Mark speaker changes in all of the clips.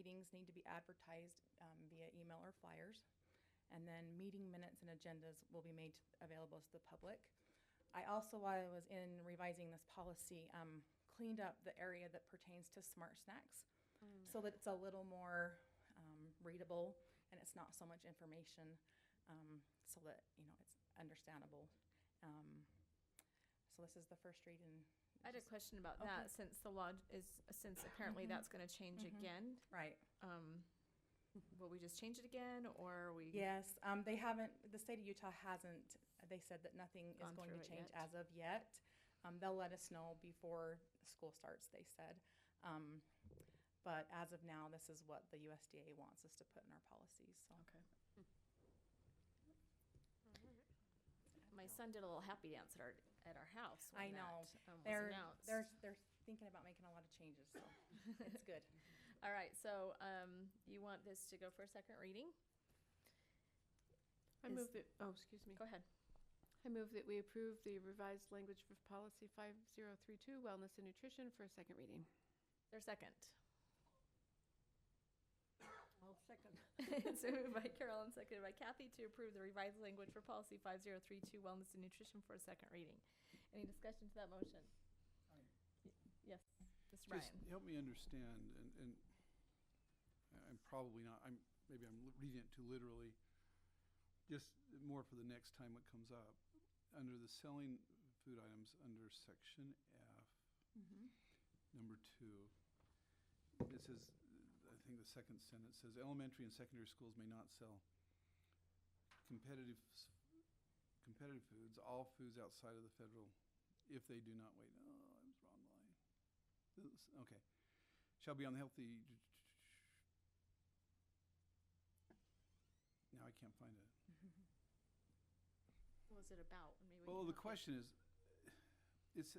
Speaker 1: things need to be advertised um, via email or flyers. And then meeting minutes and agendas will be made available to the public. I also, while I was in revising this policy, um, cleaned up the area that pertains to smart snacks so that it's a little more um, readable and it's not so much information um, so that, you know, it's understandable. Um, so this is the first read and.
Speaker 2: I had a question about
Speaker 1: Okay.
Speaker 2: that since the law is, since apparently that's going to change again.
Speaker 1: Right.
Speaker 2: Um, will we just change it again or are we?
Speaker 1: Yes, um, they haven't, the state of Utah hasn't, they said that nothing is
Speaker 2: Gone
Speaker 1: going to
Speaker 2: through it
Speaker 1: change
Speaker 2: yet.
Speaker 1: as of yet. Um, they'll let us know before school starts, they said. Um, but as of now, this is what the USDA wants us to put in our policies, so.
Speaker 2: Okay. My son did a little happy dance at our, at our house.
Speaker 1: I
Speaker 2: when
Speaker 1: know.
Speaker 2: that, um, was
Speaker 1: They're,
Speaker 2: announced.
Speaker 1: they're, they're thinking about making a lot of changes, so it's good.
Speaker 2: All right, so, um, you want this to go for a second reading?
Speaker 3: I
Speaker 2: Is-
Speaker 3: move that, oh, excuse me.
Speaker 2: Go ahead.
Speaker 3: I move that we approve the revised language of policy 5032, wellness and nutrition, for a second reading.
Speaker 2: There's second.
Speaker 4: I'll second.
Speaker 2: so moved by Carol and seconded by Kathy to approve the revised language for policy 5032 wellness and nutrition for a second reading. Any discussion to that motion?
Speaker 4: Aye.
Speaker 2: Y- Yes, Mr.
Speaker 5: Just
Speaker 2: Ryan.
Speaker 5: help me understand, and, and I- I'm probably not, I'm, maybe I'm li- reading it too literally. Just more for the next time it comes up. Under the selling food items, under section F,
Speaker 2: Mm-hmm.
Speaker 5: number two, it says, I think the second sentence says, elementary and secondary schools may not sell competitive, s- competitive foods, all foods outside of the federal, if they do not wait, oh, I was wrong line. This- Okay. Shall be unhealthy. Now I can't find it.
Speaker 2: What was it about? Maybe we
Speaker 5: Well,
Speaker 2: can
Speaker 5: the
Speaker 2: help you.
Speaker 5: question is, it's,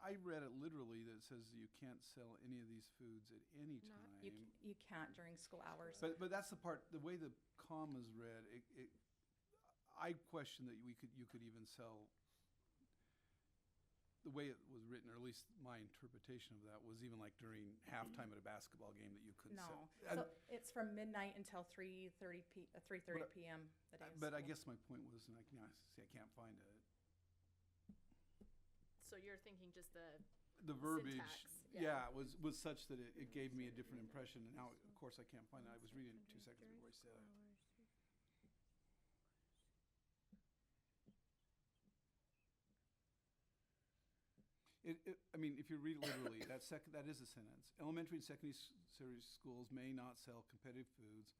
Speaker 5: I read it literally that it says you can't sell any of these foods at any
Speaker 3: Not-
Speaker 5: time.
Speaker 1: You, c- you can't during school hours.
Speaker 5: But, but that's the part, the way the comma's read, it, it, I question that we could, you could even sell, the way it was written, or at least my interpretation of that, was even like during halftime at a basketball game that you couldn't
Speaker 1: No, so
Speaker 5: sell.
Speaker 1: it's from midnight until three thirty P, uh, three thirty
Speaker 5: But I-
Speaker 1: PM the day
Speaker 5: And-
Speaker 1: of
Speaker 5: But I
Speaker 1: school.
Speaker 5: guess my point was, and I, can- I see, I can't find it,
Speaker 2: So you're thinking just the,
Speaker 5: the verbiage,
Speaker 2: Syntax, yeah.
Speaker 5: yeah, was, was such that it, it gave me a different impression, and now, of course, I can't find it, I was reading it two seconds before I said it. It, it, I mean, if you read it literally, that sec, that is a sentence. Elementary and secondary schools may not sell competitive foods,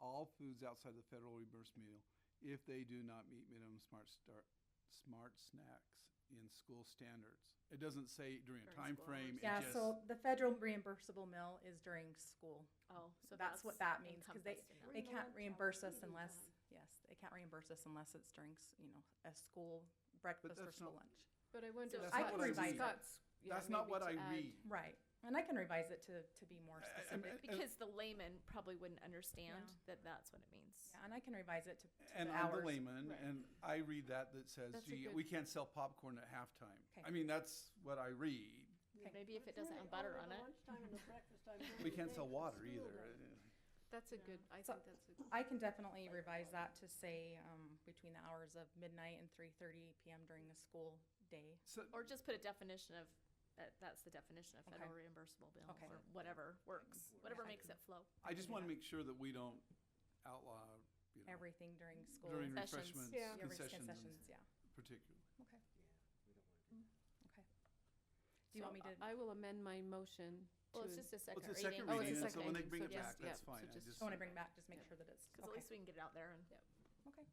Speaker 5: all foods outside the federal reimbursed meal, if they do not meet minimum smart start, smart snacks in school standards. It doesn't say during a
Speaker 2: During
Speaker 5: time
Speaker 2: school
Speaker 5: frame.
Speaker 2: hours.
Speaker 5: it
Speaker 1: Yeah,
Speaker 5: just-
Speaker 1: so the federal reimbursable meal is during school.
Speaker 2: oh, so
Speaker 1: That's what that means, because they,
Speaker 2: encompassed in that.
Speaker 1: they
Speaker 4: During the lunch
Speaker 1: can't
Speaker 4: hour,
Speaker 1: reimburse us
Speaker 4: eating
Speaker 1: unless,
Speaker 4: time.
Speaker 1: yes, they can't reimburse us unless it's during, s- you know, a school breakfast or
Speaker 5: that's
Speaker 1: school
Speaker 5: not-
Speaker 1: lunch.
Speaker 3: But I
Speaker 2: So
Speaker 3: wonder. if
Speaker 5: That's
Speaker 3: that-
Speaker 5: not what I
Speaker 3: if
Speaker 1: read.
Speaker 3: that's- yeah,
Speaker 5: That's not
Speaker 3: maybe
Speaker 5: what
Speaker 3: to
Speaker 5: I
Speaker 3: add-
Speaker 5: read.
Speaker 1: Right, and I can revise it to, to be more
Speaker 5: I- I-
Speaker 1: specific.
Speaker 2: Because the layman probably wouldn't understand
Speaker 1: Yeah.
Speaker 2: that that's what it means.
Speaker 1: Yeah, and I can revise it to to
Speaker 5: And
Speaker 1: the
Speaker 5: I'm the
Speaker 1: hours.
Speaker 5: layman,
Speaker 3: Right.
Speaker 5: and I read that that says,
Speaker 3: That's a
Speaker 5: gee,
Speaker 3: good-
Speaker 5: we can't sell popcorn at halftime.
Speaker 1: Okay.
Speaker 5: I mean, that's what I read.
Speaker 1: Okay.
Speaker 2: Maybe if it doesn't have butter on it.
Speaker 5: We can't sell water either.
Speaker 3: That's a good, I
Speaker 1: So-
Speaker 3: think that's a,
Speaker 1: I can definitely revise that to say, um, between the hours of midnight and three thirty PM during the school day.
Speaker 5: So,
Speaker 2: Or just put a definition of, that, that's the definition of
Speaker 1: Okay.
Speaker 2: federal reimbursable bill,
Speaker 1: Okay.
Speaker 2: or whatever works, whatever makes it flow.
Speaker 5: I just want to make sure that we don't outlaw, you know,
Speaker 1: Everything during school.
Speaker 5: during
Speaker 1: Yeah,
Speaker 2: Concessions.
Speaker 5: refreshments,
Speaker 3: Yeah.
Speaker 1: every-
Speaker 5: concessions
Speaker 1: Concessions, yeah,
Speaker 5: particularly.
Speaker 1: okay,
Speaker 4: Mm.
Speaker 1: okay. Do you want me
Speaker 3: so
Speaker 1: to?
Speaker 3: I will amend my motion to.
Speaker 2: uh, Well, it's just a
Speaker 5: Well,
Speaker 2: second
Speaker 5: It's a
Speaker 2: reading.
Speaker 5: second
Speaker 3: Oh, it's a
Speaker 5: reading, and so
Speaker 3: second
Speaker 5: when they
Speaker 3: reading,
Speaker 5: bring
Speaker 3: so
Speaker 5: it
Speaker 3: just-
Speaker 5: back, that's
Speaker 3: yeah,
Speaker 5: fine.
Speaker 3: so
Speaker 5: I
Speaker 3: just-
Speaker 5: just,
Speaker 1: I want to bring back, just make sure that it's,
Speaker 2: Because at
Speaker 1: okay,
Speaker 2: least we can get it out there and.
Speaker 1: okay.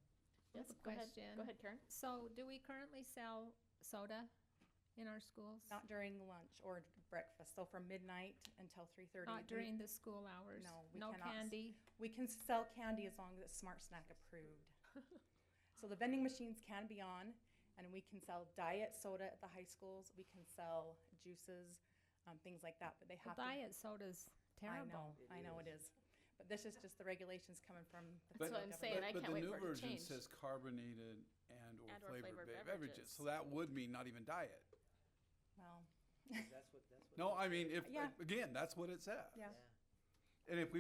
Speaker 2: Yes,
Speaker 6: a
Speaker 2: go ahead,
Speaker 6: question.
Speaker 2: go ahead, Karen.
Speaker 6: So do we currently sell soda in our schools?
Speaker 1: Not during lunch or breakfast, so from midnight until three thirty.
Speaker 6: Not during the school hours?
Speaker 1: No, we
Speaker 6: No
Speaker 1: cannot s-
Speaker 6: candy?
Speaker 1: We can sell candy as long as it's Smart Snack approved. So the vending machines can be on, and we can sell diet soda at the high schools, we can sell juices, um, things like that, but they have
Speaker 6: Well,
Speaker 1: to.
Speaker 6: diet soda's
Speaker 1: I
Speaker 6: terrible.
Speaker 1: know, I know it is, but this is just the regulations coming from the
Speaker 5: But-
Speaker 1: federal
Speaker 2: what I'm
Speaker 1: government.
Speaker 2: saying, I
Speaker 5: but
Speaker 2: can't
Speaker 5: the
Speaker 2: wait
Speaker 5: new
Speaker 2: for it to
Speaker 5: version
Speaker 2: change.
Speaker 5: says carbonated and/or
Speaker 2: And/or
Speaker 5: flavored
Speaker 2: flavored
Speaker 5: ba-
Speaker 2: beverages.
Speaker 5: beverages. So that would mean not even diet.
Speaker 1: Well,
Speaker 7: That's what, that's what.
Speaker 5: No, I mean, if,
Speaker 1: Yeah.
Speaker 5: again, that's what it says.
Speaker 1: yeah.
Speaker 7: Yeah.
Speaker 5: And if we